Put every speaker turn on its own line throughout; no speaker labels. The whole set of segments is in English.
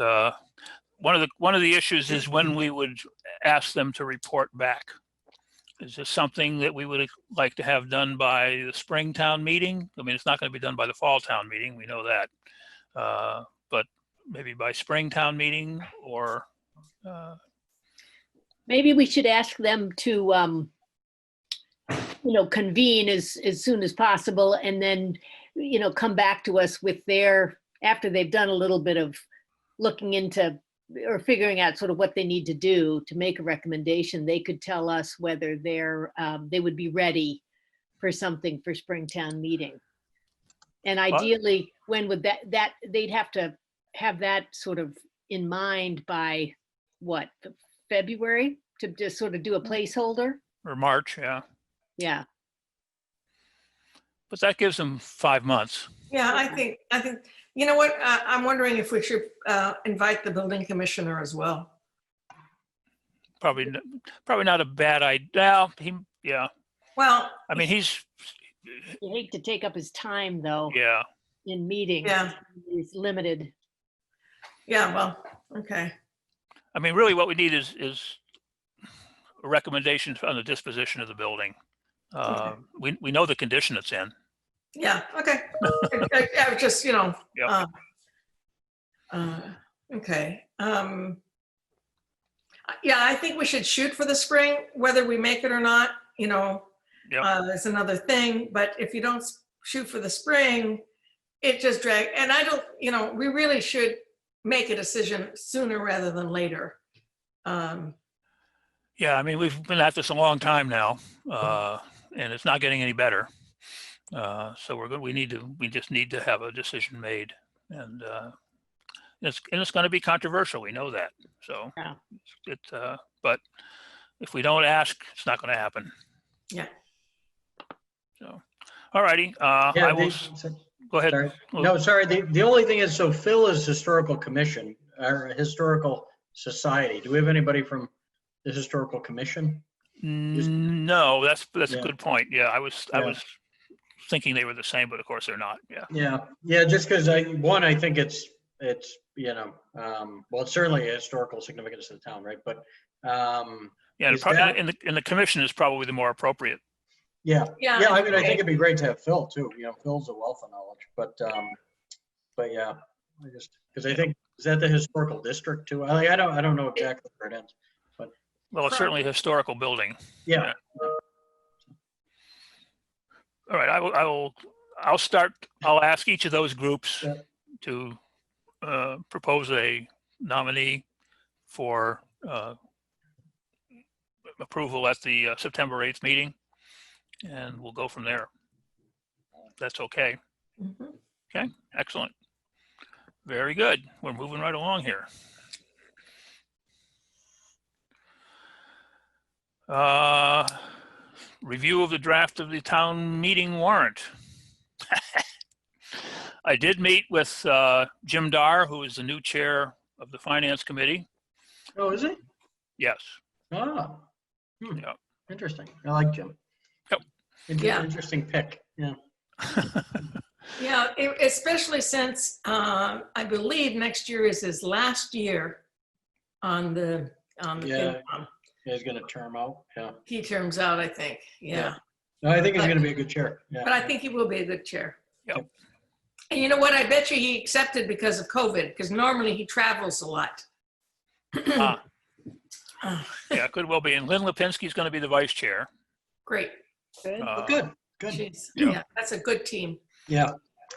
Uh, One of the, one of the issues is when we would ask them to report back. Is this something that we would like to have done by the spring town meeting? I mean, it's not going to be done by the fall town meeting, we know that. Uh, But maybe by spring town meeting or, uh,
Maybe we should ask them to, um, you know, convene as, as soon as possible and then, you know, come back to us with their, after they've done a little bit of looking into or figuring out sort of what they need to do to make a recommendation, they could tell us whether they're, um, they would be ready for something for Springtown meeting. And ideally, when would that, that, they'd have to have that sort of in mind by what, the February to just sort of do a placeholder?
or March, yeah.
Yeah,
But that gives them five months.
Yeah, I think, I think, you know what, I, I'm wondering if we should uh, invite the building commissioner as well.
Probably, n- probably not a bad idea. He, yeah,
Well,
I mean, he's,
you hate to take up his time though
yeah,
in meetings.
yeah,
He's limited.
yeah, well, okay,
I mean, really what we need is, is a recommendation on the disposition of the building. Uh, We, we know the condition it's in.
yeah, okay. I- I I was just, you know.
Yep.
uh, uh, Okay. um, I- Yeah, I think we should shoot for the spring, whether we make it or not, you know.
Yep.
uh, Is another thing, but if you don't s- shoot for the spring, it just drag, and I don't, you know, we really should make a decision sooner rather than later. Um,
Yeah, I mean, we've been at this a long time now, uh, and it's not getting any better. Uh, so we're good, we need to, we just need to have a decision made and, uh, it's, and it's gonna be controversial, we know that, so.
Yeah.
It, uh, but if we don't ask, it's not gonna happen.
Yeah.
So, all righty, uh, I
Yeah,
will,
they-
s- go ahead.
sorry.
Well-
No, sorry, the, the only thing is, so Phil is Historical Commission, or Historical Society. Do we have anybody from the Historical Commission?
Mm, No, that's, that's a
Yeah.
good point, yeah, I was, I
Yeah.
was thinking they were the same, but of course they're not, yeah.
Yeah, yeah, just because I, one, I think it's, it's, you know, um, well, it's certainly a historical significance to the town, right? But, um,
Yeah, and
Is
prob-
that-
and the, and the commission is probably the more appropriate
yeah,
Yeah.
yeah, I mean, I think it'd be great to have Phil too, you know, Phil's a wealth of knowledge, but, um, but yeah, I just, because I think, is that the historical district too? I, I don't, I don't know exactly where it ends.
Well, it's
Correct.
certainly a historical building.
Yeah,
All right, I will, I will, I'll start, I'll ask each of those groups
Yeah.
to uh, propose a nominee for uh, approval at the uh, September 8th meeting, and we'll go from there. That's okay.
Mhm.
Excellent. Very good. We're moving right along here. Uh, Review of the draft of the town meeting warrant. I did meet with uh, Jim Dar, who is the new chair of the Finance Committee.
oh, is it?
Yes,
Ah. hmm,
Yeah.
Interesting. I like Jim.
Yep.
Inter-
Yeah.
Interesting pick. Yeah.
Yeah, e- especially since um, I believe next year is his last year on the, on the,
Yeah.
FinCom.
He's going to term out. Yeah.
he terms out, I think, yeah.
Yeah. No, I think he's
But-
going to be a good chair. Yeah.
But I think he will be a good chair.
Yep.
And you know what? I bet you he accepted because of COVID, because normally he travels a lot.
Ah. yeah, could well be. And Lynn Lipinski is going to be the vice chair.
Great.
Good.
Uh,
Good. Good.
Jeez.
Yeah.
Yeah, that's a good team.
Yeah.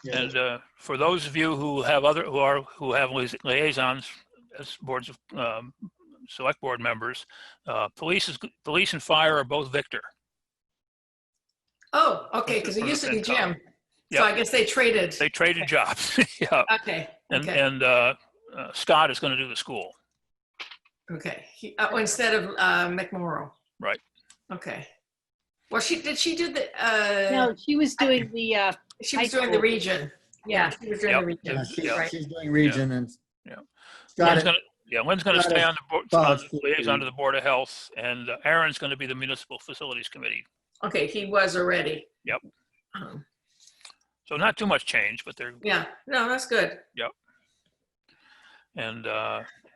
Yeah.
And uh, for those of you who have other, who are, who have lia- liaisons as boards of, um, select board members, uh, police is, police and fire are both Victor.
Oh, okay, because it used to be Jim. So
Yeah.
I guess they traded.
They traded jobs. Yeah.
Okay,
And,
okay,
and uh, uh, Scott is going to do the school.
okay. He- oh, Instead of uh, McMorro.
Right.
Okay. Well, she, did she do the, uh,
No, she was doing the, uh,
she was
high
doing the
school.
region. Yeah, she was doing the
Yep.
region.
Yeah, she-
Right.
She's doing region and.
Yeah.
Got
Lynn's
it.
gonna- Yeah, Lynn's going to
Got
stay
it.
on the board,
Got
on
it.
the liaison to the Board of Health, and uh, Aaron's going to be the Municipal Facilities Committee.
Okay, he was already.
Yep.
Um,
So not too much change, but they're,
Yeah, no, that's good.
And, uh,